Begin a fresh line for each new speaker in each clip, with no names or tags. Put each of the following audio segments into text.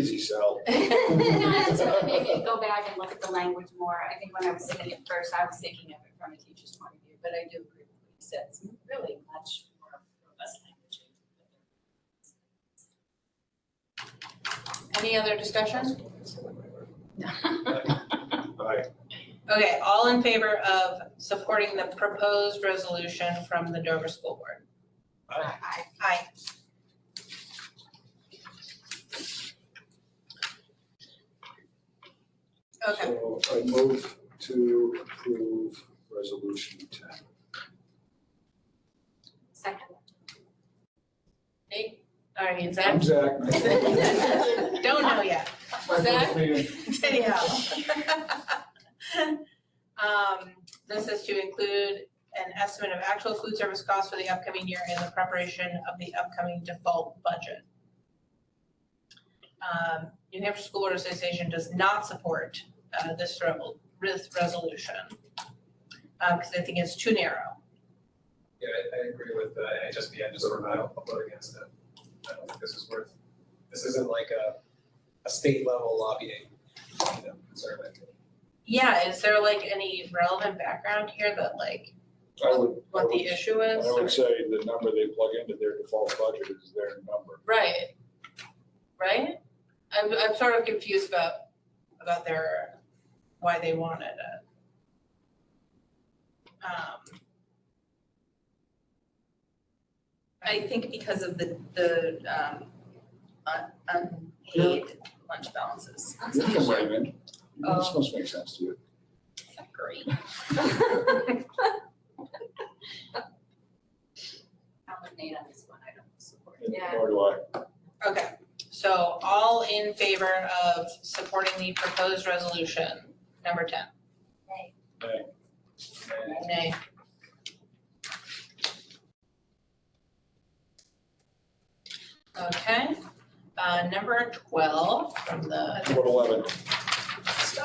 sell.
Not to maybe go back and look at the language more, I think when I was thinking it first, I was thinking of it from a teacher's point of view, but I do agree with what you said, it's really much more robust language.
Any other discussion?
Aye.
Okay, all in favor of supporting the proposed resolution from the Dover School Board?
Aye.
Aye. Okay,
So I move to approve resolution ten.
Second.
alright, is
I'm
that,
Zach.
don't know yet,
My first meeting.
Danielle. Um, this is to include an estimate of actual food service costs for the upcoming year and the preparation of the upcoming default budget. Um, New Hampshire School Board Association does not support, uh, this re- this resolution. Uh, cause I think it's too narrow.
Yeah, I, I agree with the NHSBN, just sort of, I don't vote against it. I don't think this is worth, this isn't like a, a state level lobbying, you know, concern. I think.
Yeah, is there like any relevant background here that like
I would- I
what the
would-
issue is?
I
or-
would say the number they plug into their default budget is their number.
Right. Right? I'm I'm sort of confused about about their why they wanted it. Um,
I think because of the, the, um, un- unpaid lunch balances.
You can weigh in. This
Oh.
must make sense to you.
Is that great?
I'm with Nate on this one, I don't support it.
Yeah.
Nor do I.
okay, so all in favor of supporting the proposed resolution, number ten?
Nay.
Nay.
Nay. Okay, uh, number twelve from the
What eleven?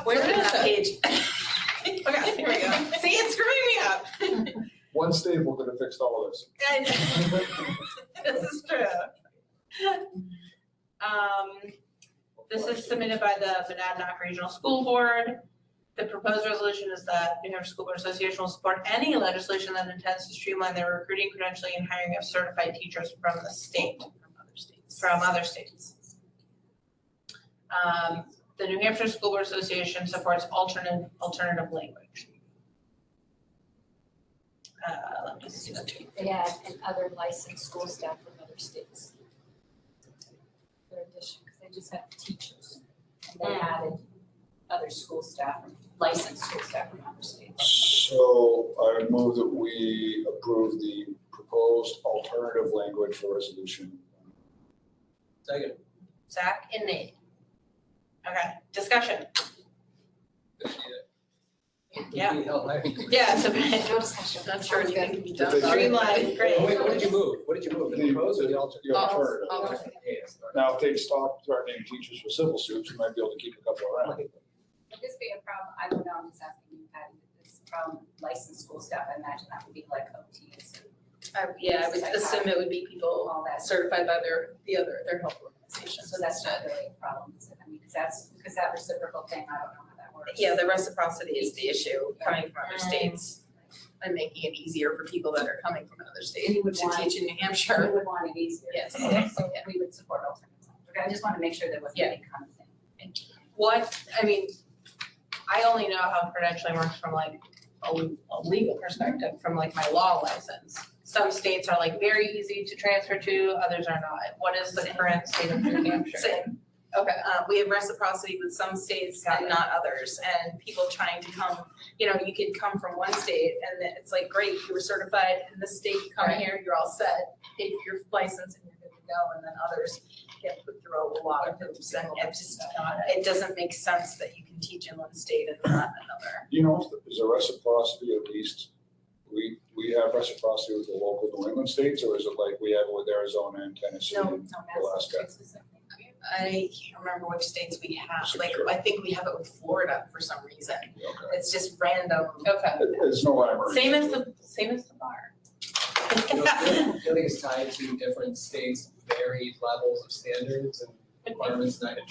Where
Flipping
is
that
it? Okay, here we go. See, it's screwing me up.
One staple could have fixed all of this.
I know. This is true. Um, this is submitted by the Monadnock Regional School Board. The proposed resolution is that New Hampshire School Board Association will support any legislation that intends to streamline the recruiting, credentialing, and hiring of certified teachers from the state. From other states. From other states. Um, the New Hampshire School Board Association supports alternate, alternative language. Uh, let me see that too.
Yeah, and other licensed school staff from other states. Their addition, because they just have teachers, and they added other school staff, licensed school staff from other states.
So I would move that we approve the proposed alternative language for resolution.
Second.
Zach and Nate. Okay, discussion. Yeah.
Maybe hell, I-
Yeah, so
No discussion.
I'm sure you can be done.
If they-
Streamline,
Wait,
great.
wait, what did you move? What did you move? The proposed or the alternate?
The alternative.
I'll- I'll-
Yes, all right.
Now, if they stop threatening teachers with civil suits, we might be able to keep a couple around.
Would this be a problem, I don't know, I'm just asking you, Patty, would this problem licensed school staff, I imagine that would be like OTs and
I- Yeah, I would assume it would be people
all that.
certified by their, the other, their health organization.
So that's not really a problem, is it? I mean, because that's, because that reciprocal thing, I don't know how that works.
Yeah, the reciprocity is the issue, coming from other states and making it easier for people that are coming from another state
You would
to
want-
teach in New
We
Hampshire.
would want it easier.
Yes.
So we would support alternatives. Okay, I just want to make sure there wasn't any conflict.
What, I mean, I only know how credentialing works from like a, a legal perspective, from like my law license. Some states are like very easy to transfer to, others are not. What is the current state of New Hampshire?
Same.
Okay,
Uh, we have reciprocity with some states and not others, and people trying to come, you know, you could come from one state and then it's like, great, you were certified in this state, you come
Right.
here, you're all set, pay for your license and you're good to go, and then others get put through a lot of hoops, and it just not, it doesn't make sense that you can teach in one state and not another.
You know, is there reciprocity at least? We, we have reciprocity with the local New England states, or is it like we have with Arizona and Tennessee
No,
and Alaska?
I can't remember which states we have, like,
Secure.
I think we have it with Florida for some reason,
Okay.
it's just random.
okay.
It- It's no rhyme or
Same as
reason.
the, same as the bar.
You know, I feel like it's tied to different states' varied levels of standards and requirements, and I-